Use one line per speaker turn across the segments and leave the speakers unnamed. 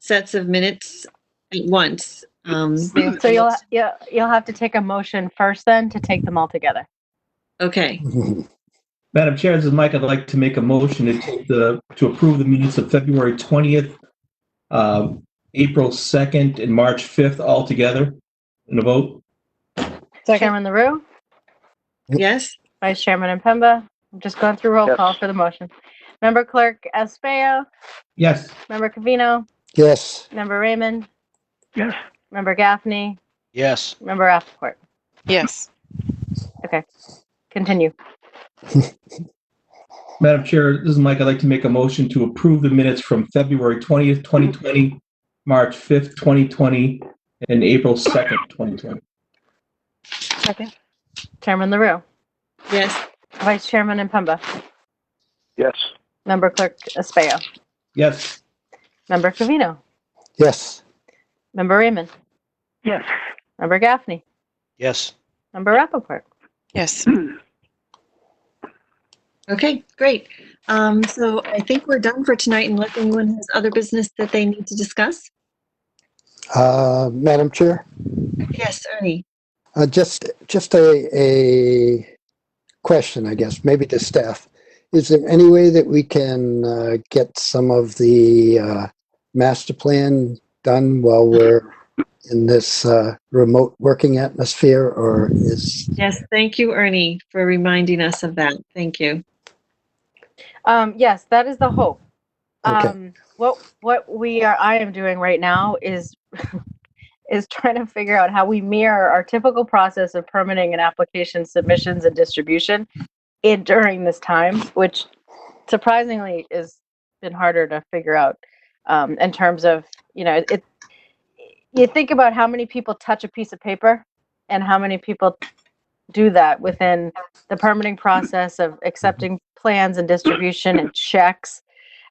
sets of minutes at once. Um,
So you'll, you'll, you'll have to take a motion first then to take them all together.
okay,
Madam Chair, this is Mike. I'd like to make a motion to take the, to approve the minutes of February 20th, uh, April 2nd, and March 5th all together in a vote.
Chairman LaRue,
yes,
Vice Chairman Impemba, I'm just going through roll
Yes.
call for the motion. Member Clerk Españo,
Yes.
Member Cavino,
Yes.
Member Raymond,
Yes.
Member Gaffney,
Yes.
Member Rappaport.
Yes.
Continue.
Madam Chair, this is Mike. I'd like to make a motion to approve the minutes from February 20th, 2020, March 5th, 2020, and April 2nd, 2020.
Second. Chairman LaRue,
yes,
Vice Chairman Impemba,
Yes.
Member Clerk Españo,
Yes.
Member Cavino,
Yes.
Member Raymond,
Yes.
Member Gaffney,
Yes.
Member Rappaport.
Yes.
okay, great. Um, so I think we're done for tonight unless anyone has other business that they need to discuss.
Uh, Madam Chair,
Yes, Ernie,
uh, just, just a, a question, I guess, maybe to staff. Is there any way that we can, uh, get some of the, uh, master plan done while we're in this, uh, remote working atmosphere or is,
yes, thank you, Ernie, for reminding us of that. Thank you.
Um, yes, that is the hope.
Okay.
Um, what what we are I am doing right now is is trying to figure out how we mirror our typical process of permitting and application submissions and distribution in during this time, which surprisingly is been harder to figure out um, in terms of you know it. You think about how many people touch a piece of paper and how many people do that within the permitting process of accepting plans and distribution and checks.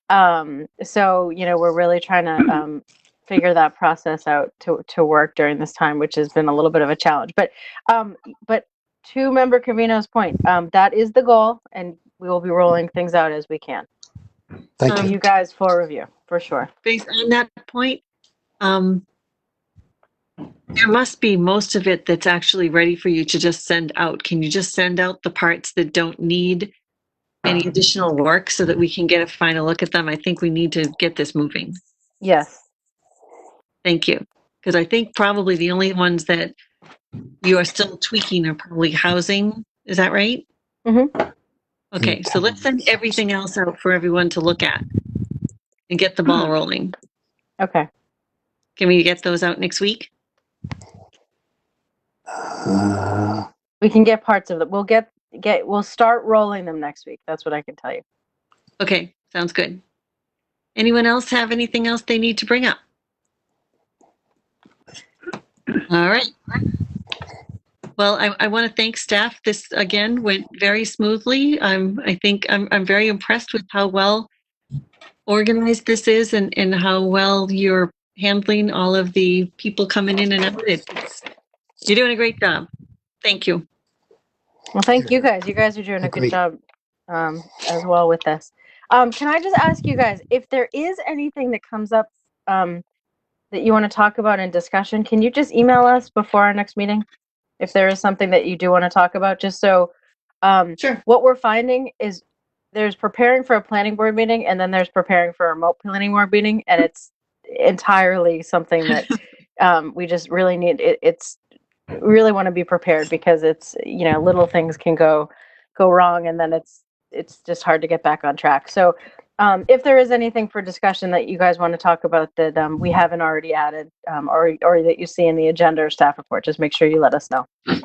Um, so, you know, we're really trying to um, figure that process out to, to work during this time, which has been a little bit of a challenge. But, um, but to member Covino's point, um, that is the goal, and we will be rolling things out as we can.
thank
Um,
you.
Oh, You guys for review, for sure.
Based on that point, um, there must be most of it that's actually ready for you to just send out. Can you just send out the parts that don't need any additional work so that we can get a final look at them? I think we need to get this moving.
Yes.
Thank you. Because I think probably the only ones that you are still tweaking are probably housing. Is that right? Mm-hmm. Okay, so let's send everything else out for everyone to look at and get the ball rolling.
Okay.
Can we get those out next week?
Uh,
We can get parts of it. We'll get, get, we'll start rolling them next week. That's what I can tell you.
Okay, sounds good. Anyone else have anything else they need to bring up? All right. Well, I, I want to thank staff. This again went very smoothly. I'm, I think I'm, I'm very impressed with how well organized this is and, and how well you're handling all of the people coming in and out. It's, you're doing a great job. Thank you.
Well, thank you guys. You guys are doing a
Agree.
good job um, as well with this. Um, can I just ask you guys if there is anything that comes up um, that you want to talk about in discussion? Can you just email us before our next meeting if there is something that you do want to talk about? Just so um,
Sure.
what we're finding is there's preparing for a planning board meeting and then there's preparing for a remote planning board meeting, and it's entirely something that um, we just really need. It, it's really want to be prepared because it's you know little things can go go wrong and then it's it's just hard to get back on track so um, if there is anything for discussion that you guys want to talk about that um, we haven't already added um, or or that you see in the agenda or staff report just make sure you let us know
Great.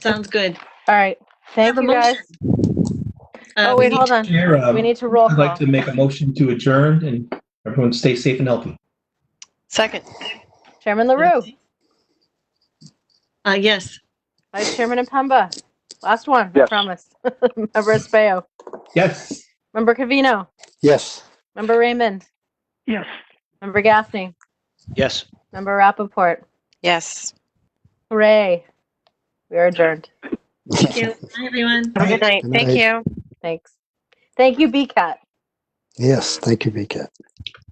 Sounds good.
all right thank
Have a
you guys
Uh,
oh
we
wait
need-
hold on
Chair, uh,
we need to roll
I'd like
call
to make a motion to adjourn, and everyone stay safe and healthy.
Second.
chairman larue
Uh, yes.
vice chairman impemba last one i
Yes.
promise member espayo
Yes.
member cavino
Yes.
member raymond
Yes.
member gaffney
Yes.
member rappaport
Yes.
hooray we are adjourned
Thank you. Bye, everyone.
Have a good night.
Good
Thank
night.
you.
Thanks. Thank you, BCAT.
Yes, thank you, Becat.